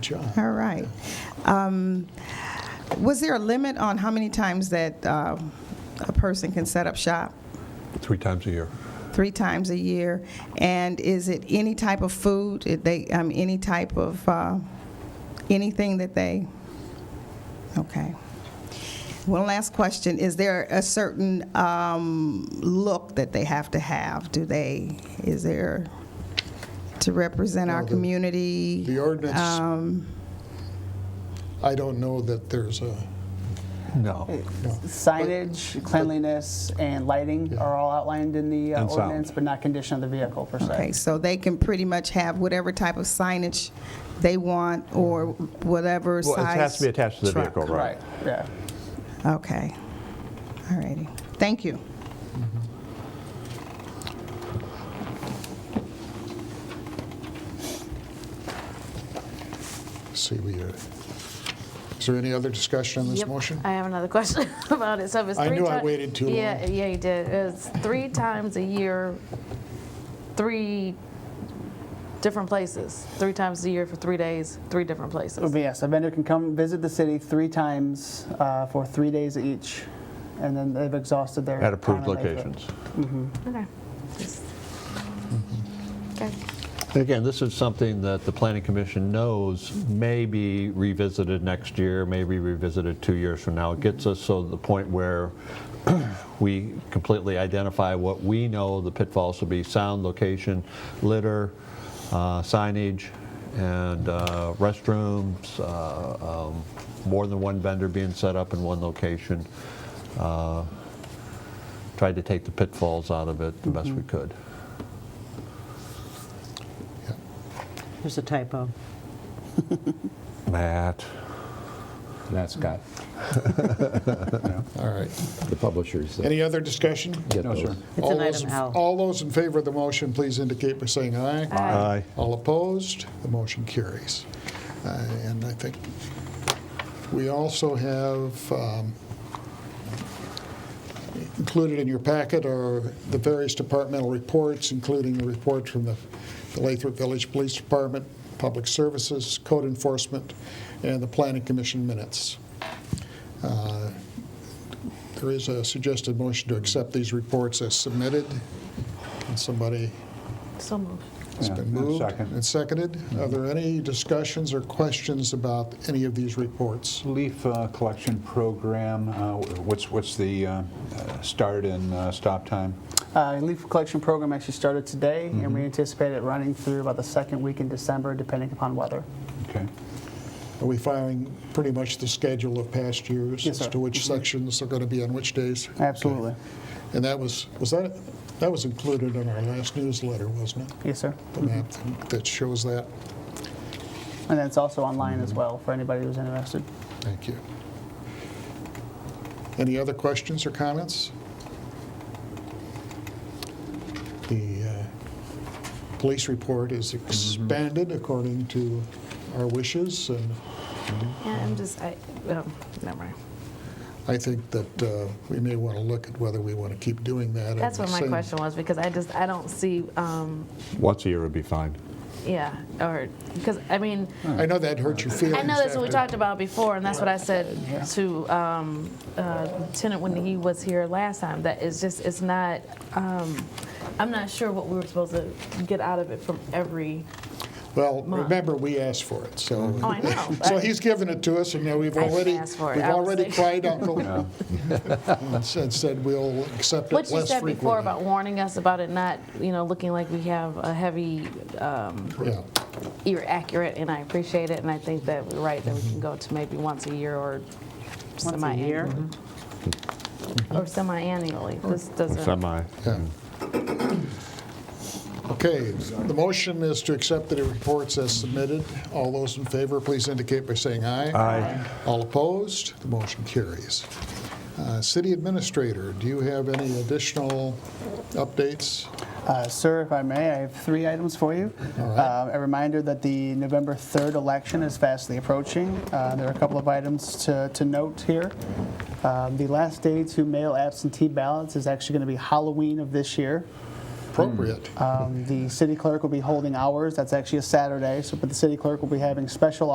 job. All right. Um, Was there a limit on how many times that uh, a person can set up shop? three times a year. Three times a year? And is it any type of food, Did they, um, any type of, uh, anything that they, okay. One last question, is there a certain um, look that they have to have? Do they, is there, to represent our Well, the- community? The ordinance, Um, I don't know that there's a, No. Signage, cleanliness, and lighting are all outlined in the uh, And sound. ordinance, but not condition of the vehicle per Okay, se. so they can pretty much have whatever type of signage they want or whatever Well, size. it has to be attached to the truck. vehicle, right? Right, yeah. Okay, all righty. Thank you. see, we, uh, is there any other discussion on this Yep, motion? I have another question about it. So it was I three knew I ti- waited too Yeah, long. yeah, you did. It's three times a year, three different places. Three times a year for three days, three different places. But yes, a vendor can come visit the city three times uh, for three days each, and then they've exhausted their. At approved time and labor. locations. Okay. Just- Okay. Again, this is something that the planning commission knows may be revisited next year, may be revisited two years from now. It gets us so to the point where we completely identify what we know the pitfalls will be, sound, location, litter, uh, signage, and uh, restrooms, uh, um, more than one vendor being set up in one location. Uh, Tried to take the pitfalls out of it the best we could. There's a typo. Matt? That's got All right. the publishers. uh, that Any other discussion? get All those. It's an those item in- L. All those in favor of the motion, please indicate by saying aye. Aye. All opposed, the motion carries. Uh, And I think we also have um, included in your packet are the various departmental reports, including the report from the the Lathrop Village Police Department, Public Services, Code Enforcement, and the Planning Commission minutes. Uh, There is a suggested motion to accept these reports as submitted. Can somebody So moved. it's Yeah, been and moved second. and seconded. Are there any discussions or questions about any of these reports? Leaf uh, collection program, uh, what's, what's the uh, uh, start and uh, stop time? Uh, Leaf collection program actually started today, and Mm-hmm. we anticipate it running through about the second week in December, depending upon weather. Okay. Are we following pretty much the schedule of past years? Yes, sir. Mm-hmm. As to which sections are going to be on which days? Absolutely. And that was, was that, that was included in our last newsletter, wasn't it? Yes, sir. The map Mm-hmm. that shows that? And then it's also online as well for anybody who's interested. Thank you. Any other questions or comments? The uh, police report is expanded according to our wishes, and Yeah, I'm just, I, oh, never mind. I think that uh, we may want to look at whether we want to keep doing that. That's and what my same- question was because I just, I don't see, um, Once a year would be fine. yeah, or, because, I mean, I know that hurt your feelings. I know that's what we after- talked about before, and that's what I said to um, uh, Lieutenant when he was here last time, that it's just, it's not, um, I'm not sure what we were supposed to get out of it from every, Well, Month. remember, we asked for it, so. oh, I know. So he's given it to us, and now we've I didn't already, ask for it. we've I was already like- cried uncle and said- said we'll accept it less What frequently. you said before about warning us about it not, you know, looking like we have a heavy, um, Yeah. you're accurate, and I appreciate it, and I think that we're right, that we can go to maybe once a year or Once a year? semi-annually. Or semi-annually, this doesn't. Semi. Yeah. Okay, the motion is to accept the reports as submitted. All those in favor, please indicate by saying aye. Aye. All opposed, the motion carries. Uh, City Administrator, do you have any additional updates? Uh, Sir, if I may, I have three items for you. Uh, A reminder that the November 3rd election is fastly approaching. Uh, There are a couple of items to to note here. Um, The last day to mail absentee ballots is actually going to be Halloween of this year. Appropriate. Um, The city clerk will be holding hours. That's actually a Saturday, so, but the city clerk will be having special